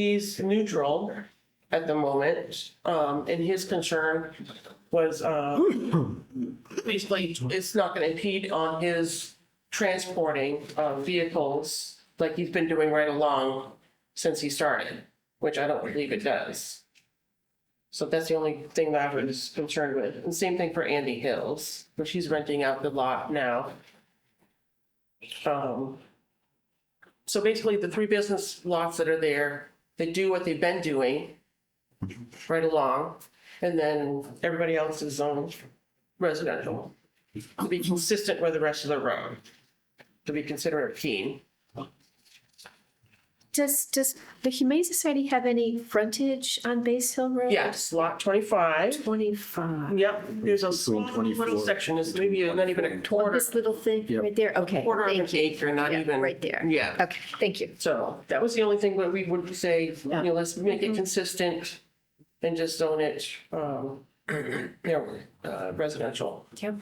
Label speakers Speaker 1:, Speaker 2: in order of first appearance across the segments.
Speaker 1: he's neutral at the moment. Um, and his concern was, uh, basically, it's not gonna impede on his transporting, uh, vehicles like he's been doing right along since he started, which I don't believe it does. So that's the only thing that I was concerned with. And same thing for Andy Hills, where she's renting out the lot now. Um, so basically, the three business lots that are there, they do what they've been doing right along, and then everybody else is zoned residential. To be consistent with the rest of the road, to be considerate of Keene.
Speaker 2: Does, does the Humane Society have any frontage on Base Hill Road?
Speaker 1: Yes, lot twenty-five,
Speaker 2: Twenty-five.
Speaker 1: yep, there's a small
Speaker 3: Between
Speaker 1: little
Speaker 3: 24.
Speaker 1: section, it's maybe not even a quarter,
Speaker 2: This little thing
Speaker 3: Yep.
Speaker 2: right there, okay.
Speaker 1: quarter of
Speaker 2: thank
Speaker 1: an
Speaker 2: you.
Speaker 1: acre, not
Speaker 2: Yeah,
Speaker 1: even.
Speaker 2: Right there.
Speaker 1: Yeah.
Speaker 2: Okay, thank you.
Speaker 1: So that was the only thing that we would say, you
Speaker 2: Yeah.
Speaker 1: know, let's make it consistent and just zone it, um, you know, uh, residential.
Speaker 2: Yep.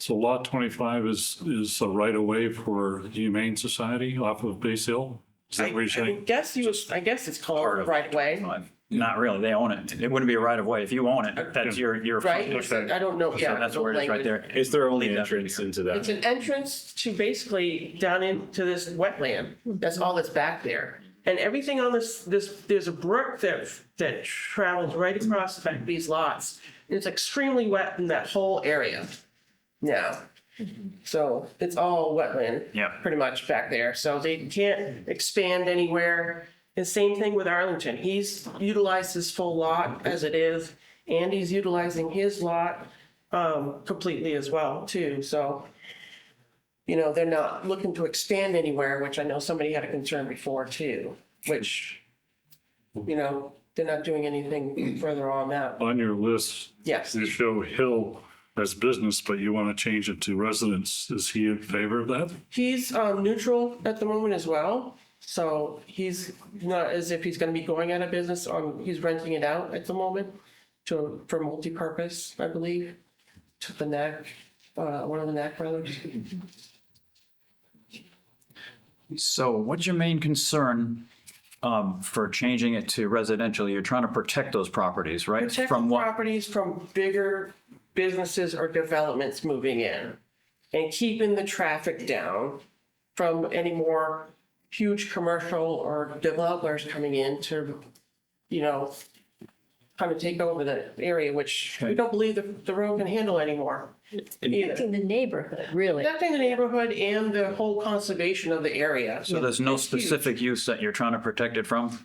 Speaker 4: So lot twenty-five is, is a right of way for Humane Society off of Base Hill? Is that what you're
Speaker 1: I
Speaker 4: saying?
Speaker 1: guess you, I guess it's called right away,
Speaker 5: Not really, they own it. It wouldn't be a right of way. If you own it, that's your, your.
Speaker 1: right?
Speaker 5: So
Speaker 1: I don't know, yeah.
Speaker 5: That's where it is right there.
Speaker 3: It's their
Speaker 5: Leave
Speaker 3: only
Speaker 5: that.
Speaker 3: entrance into
Speaker 1: It's
Speaker 3: that.
Speaker 1: an entrance to basically down into this wetland. That's all that's back there. And everything on this, this, there's a brook that, that travels right across the back of these lots. It's extremely wet in that whole area. Yeah. So it's all wetland.
Speaker 5: Yeah.
Speaker 1: Pretty much back there. So they can't expand anywhere. And same thing with Arlington. He's utilized his full lot as it is. Andy's utilizing his lot um, completely as well too. So you know, they're not looking to expand anywhere, which I know somebody had a concern before too, which, you know, they're not doing anything further on that.
Speaker 4: On your list,
Speaker 1: Yes,
Speaker 4: you show Hill as business, but you want to change it to residence. Is he in favor of that?
Speaker 1: he's um neutral at the moment as well. So he's not as if he's gonna be going out of business, um, he's renting it out at the moment to, for multi-purpose, I believe, to the NAC, uh, one of the NAC brothers.
Speaker 5: So what's your main concern um, for changing it to residential? You're trying to protect those properties, right?
Speaker 1: Protect
Speaker 5: From what?
Speaker 1: properties from bigger businesses or developments moving in and keeping the traffic down from any more huge commercial or developers coming in to, you know, kind of take over the area, which we
Speaker 5: Okay.
Speaker 1: don't believe the, the road can handle anymore either.
Speaker 2: Affecting the neighborhood, really.
Speaker 1: Affecting the neighborhood and the whole conservation of the area.
Speaker 5: So there's no
Speaker 1: It's huge.
Speaker 5: specific use that you're trying to protect it from?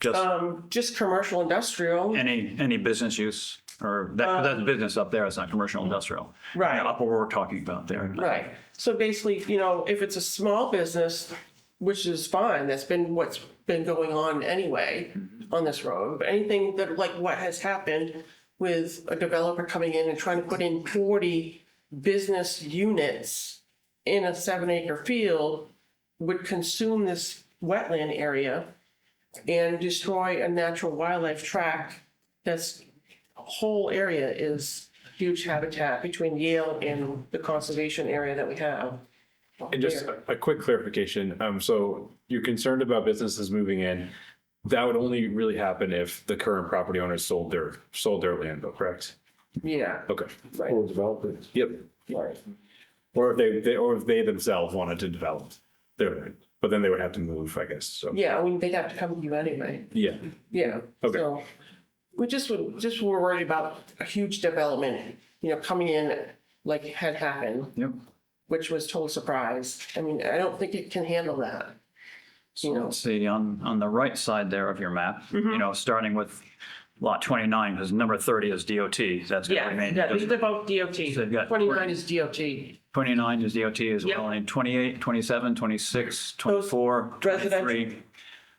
Speaker 5: Just
Speaker 1: Um, just commercial, industrial.
Speaker 5: any, any business use or that, that's business up there. It's not commercial industrial.
Speaker 1: um, Right.
Speaker 5: Up what we're talking about there.
Speaker 1: Right. So basically, you know, if it's a small business, which is fine, that's been what's been going on anyway on this road, but anything that, like what has happened with a developer coming in and trying to put in forty business units in a seven acre field would consume this wetland area and destroy a natural wildlife tract that's whole area is huge habitat between Yale and the conservation area that we have.
Speaker 3: And just uh, a- a quick clarification, um, so you're concerned about businesses moving in. That would only really happen if the current property owners sold their, sold their land, though, correct?
Speaker 1: Yeah,
Speaker 3: Okay.
Speaker 1: right,
Speaker 6: Or developers.
Speaker 3: Yep.
Speaker 1: right.
Speaker 3: Or if they, they, or if they themselves wanted to develop their, land. but then they would have to move, I guess, so,
Speaker 1: Yeah, I mean, they'd have to come to you anyway,
Speaker 3: yeah.
Speaker 1: yeah.
Speaker 3: Okay.
Speaker 1: So We just, would just were worried about a huge development, you know, coming in like had happened,
Speaker 5: Yep.
Speaker 1: which was total surprise. I mean, I don't think it can handle that.
Speaker 5: So let's see, on, on the right side there of your map,
Speaker 1: Mm-hmm.
Speaker 5: you know, starting with lot 29, because number 30 is DOT, that's going to remain. because
Speaker 1: both DOT.
Speaker 5: they've got-
Speaker 1: Twenty-nine is DOT.
Speaker 5: 29 is DOT as
Speaker 1: Yep.
Speaker 5: well, and 28, 27, 26, 24,
Speaker 1: residential.
Speaker 5: 23.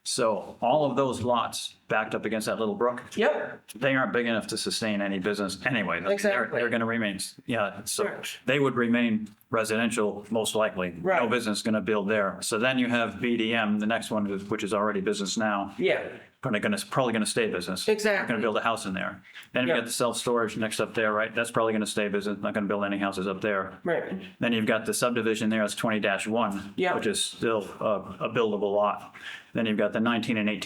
Speaker 5: So all of those lots backed up against that little brook,
Speaker 1: Yep,
Speaker 5: they aren't big enough to sustain any business anyway. They're-
Speaker 1: Exactly.
Speaker 5: They're going to remain, yeah, so
Speaker 1: Correct.
Speaker 5: they would remain residential, most likely. No
Speaker 1: Right.
Speaker 5: business going to build there. So then you have BDM, the next one, is- which is already business now.
Speaker 1: yeah,
Speaker 5: Probably going to, probably going to stay business. Not
Speaker 1: Exactly.
Speaker 5: going to build a house in there. Then you
Speaker 1: Yeah.
Speaker 5: got the self-storage next up there, right? That's probably going to stay business, not going to build any houses up there.
Speaker 1: right,
Speaker 5: Then you've got the subdivision there, that's twenty one.
Speaker 1: Yeah.
Speaker 5: Which is still a, a buildable lot. Then you've got the nineteen and eighteen